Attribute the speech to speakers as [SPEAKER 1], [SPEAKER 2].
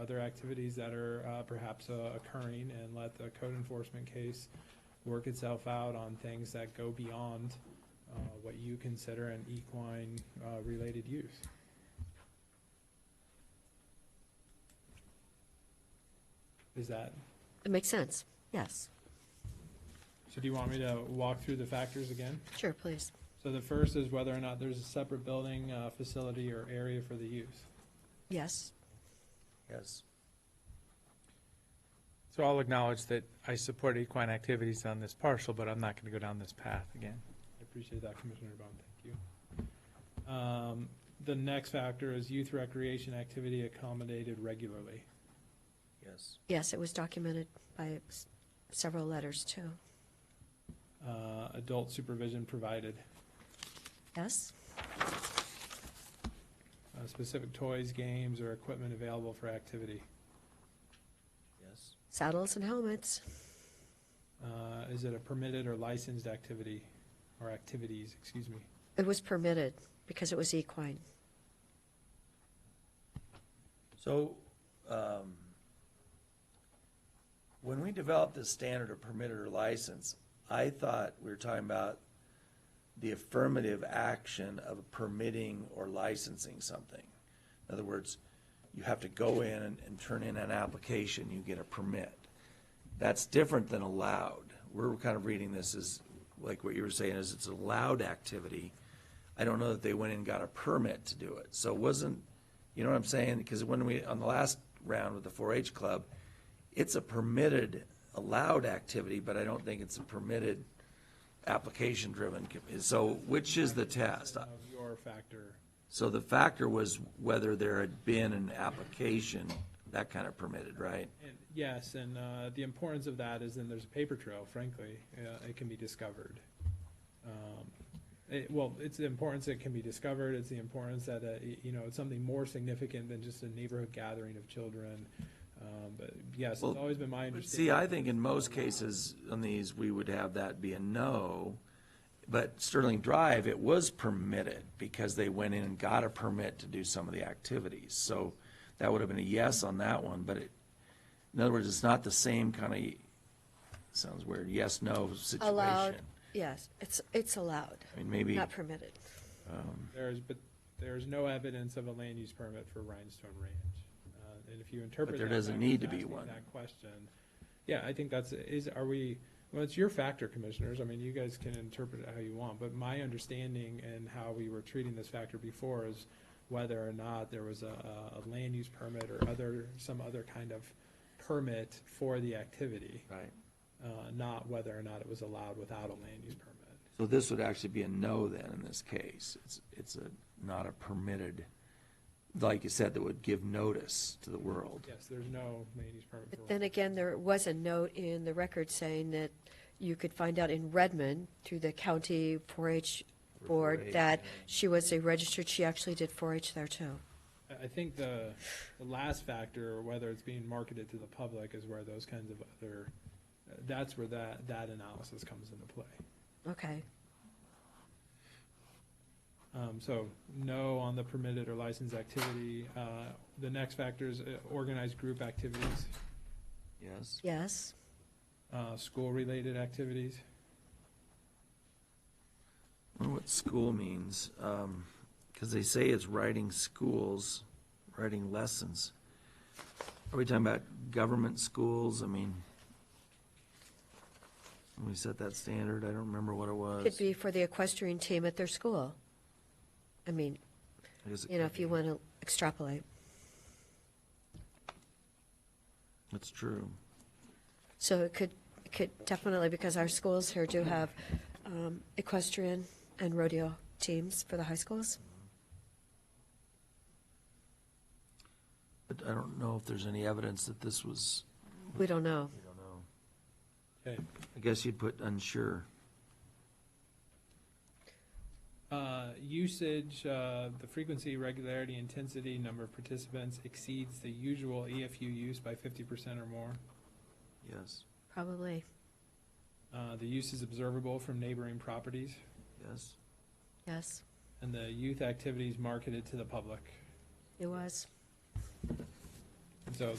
[SPEAKER 1] other activities that are uh, perhaps uh, occurring and let the code enforcement case work itself out on things that go beyond uh, what you consider an equine uh, related use. Is that,
[SPEAKER 2] It makes sense, yes.
[SPEAKER 1] so do you want me to walk through the factors again?
[SPEAKER 2] Sure, please.
[SPEAKER 1] So the first is whether or not there's a separate building, uh, facility, or area for the use.
[SPEAKER 2] Yes,
[SPEAKER 3] Yes.
[SPEAKER 4] So I'll acknowledge that I support equine activities on this parcel, but I'm not going to go down this path again.
[SPEAKER 1] I appreciate that, Commissioner Bond, thank you. Um, The next factor is youth recreation activity accommodated regularly.
[SPEAKER 3] Yes.
[SPEAKER 2] yes, it was documented by s- several letters, too.
[SPEAKER 1] Uh, Adult supervision provided.
[SPEAKER 2] Yes,
[SPEAKER 1] Uh, Specific toys, games, or equipment available for activity.
[SPEAKER 3] Yes.
[SPEAKER 2] saddles and helmets,
[SPEAKER 1] Uh, Is it a permitted or licensed activity, or activities, excuse me?
[SPEAKER 2] it was permitted because it was equine.
[SPEAKER 3] So, um, when we developed this standard of permitted or license, I thought we were talking about the affirmative action of permitting or licensing something. In other words, you have to go in and, and turn in an application, you get a permit. That's different than allowed. We're kind of reading this as, like what you were saying, is it's allowed activity. I don't know that they went and got a permit to do it. So it wasn't, you know what I'm saying? Because when we, on the last round with the four H club, it's a permitted, allowed activity, but I don't think it's a permitted, application driven. So which is the test?
[SPEAKER 1] Of Your factor,
[SPEAKER 3] So the factor was whether there had been an application, that kind of permitted, right?
[SPEAKER 1] and yes, and uh, the importance of that is then there's a paper trail, frankly, Uh, it can be discovered. Um, it- Well, it's the importance that it can be discovered, it's the importance that, uh, y- you know, it's something more significant than just a neighborhood gathering of children. Um, But yes, it's
[SPEAKER 3] Well,
[SPEAKER 1] always been my
[SPEAKER 3] But
[SPEAKER 1] understanding.
[SPEAKER 3] See, I think in most cases on these, we would have that be a no. But Sterling Drive, it was permitted because they went in and got a permit to do some of the activities. So that would have been a yes on that one, but it, in other words, it's not the same kind of, sounds weird, yes, no situation.
[SPEAKER 2] Allowed, yes, it's, it's allowed,
[SPEAKER 3] I mean, maybe.
[SPEAKER 2] not permitted.
[SPEAKER 1] There's, but there's no evidence of a land use permit for Rhinestone Ranch. Uh, And if you interpret.
[SPEAKER 3] there
[SPEAKER 1] that
[SPEAKER 3] doesn't
[SPEAKER 1] backwards,
[SPEAKER 3] need to be
[SPEAKER 1] asking
[SPEAKER 3] one.
[SPEAKER 1] That question, yeah, I think that's, is, are we, well, it's your factor, commissioners, I mean, you guys can interpret it how you want, but my understanding and how we were treating this factor before is whether or not there was a, a a land use permit or other, some other kind of permit for the activity,
[SPEAKER 3] Right.
[SPEAKER 1] uh, not whether or not it was allowed without a land use permit.
[SPEAKER 3] So this would actually be a no then in this case. It's, it's a, not a permitted, like you said, that would give notice to the world.
[SPEAKER 1] Yes, there's no land use permit. for
[SPEAKER 2] But then again, there was a note in the record saying that you could find out in Redmond through the county 4-H board
[SPEAKER 3] 4-H,
[SPEAKER 2] that
[SPEAKER 3] yeah.
[SPEAKER 2] she was a registered, she actually did 4-H there, too.
[SPEAKER 1] I- I think the, the last factor, whether it's being marketed to the public, is where those kinds of other, uh, that's where that, that analysis comes into play.
[SPEAKER 2] Okay,
[SPEAKER 1] Um, so no on the permitted or licensed activity. Uh, the next factor is uh, organized group activities,
[SPEAKER 3] Yes?
[SPEAKER 2] yes,
[SPEAKER 1] uh, school-related activities.
[SPEAKER 3] I wonder what school means, um, cause they say it's writing schools, writing lessons. Are we talking about government schools? I mean, when we set that standard, I don't remember what it was.
[SPEAKER 2] could be for the equestrian team at their school. I mean,
[SPEAKER 3] I guess it
[SPEAKER 2] you know,
[SPEAKER 3] could
[SPEAKER 2] if you
[SPEAKER 3] be.
[SPEAKER 2] want to extrapolate.
[SPEAKER 3] That's true.
[SPEAKER 2] So it could, it could definitely, because our schools here do have um, equestrian and rodeo teams for the high schools.
[SPEAKER 3] But I don't know if there's any evidence that this was,
[SPEAKER 2] We don't know.
[SPEAKER 3] I don't know.
[SPEAKER 1] Okay.
[SPEAKER 3] I guess you'd put unsure.
[SPEAKER 1] Uh, usage, uh, the frequency, regularity, intensity, number of participants exceeds the usual EFU use by fifty percent or more.
[SPEAKER 3] Yes,
[SPEAKER 2] Probably.
[SPEAKER 1] Uh, the use is observable from neighboring properties.
[SPEAKER 3] yes,
[SPEAKER 2] Yes,
[SPEAKER 1] And the youth activities marketed to the public.
[SPEAKER 2] it was.
[SPEAKER 1] And so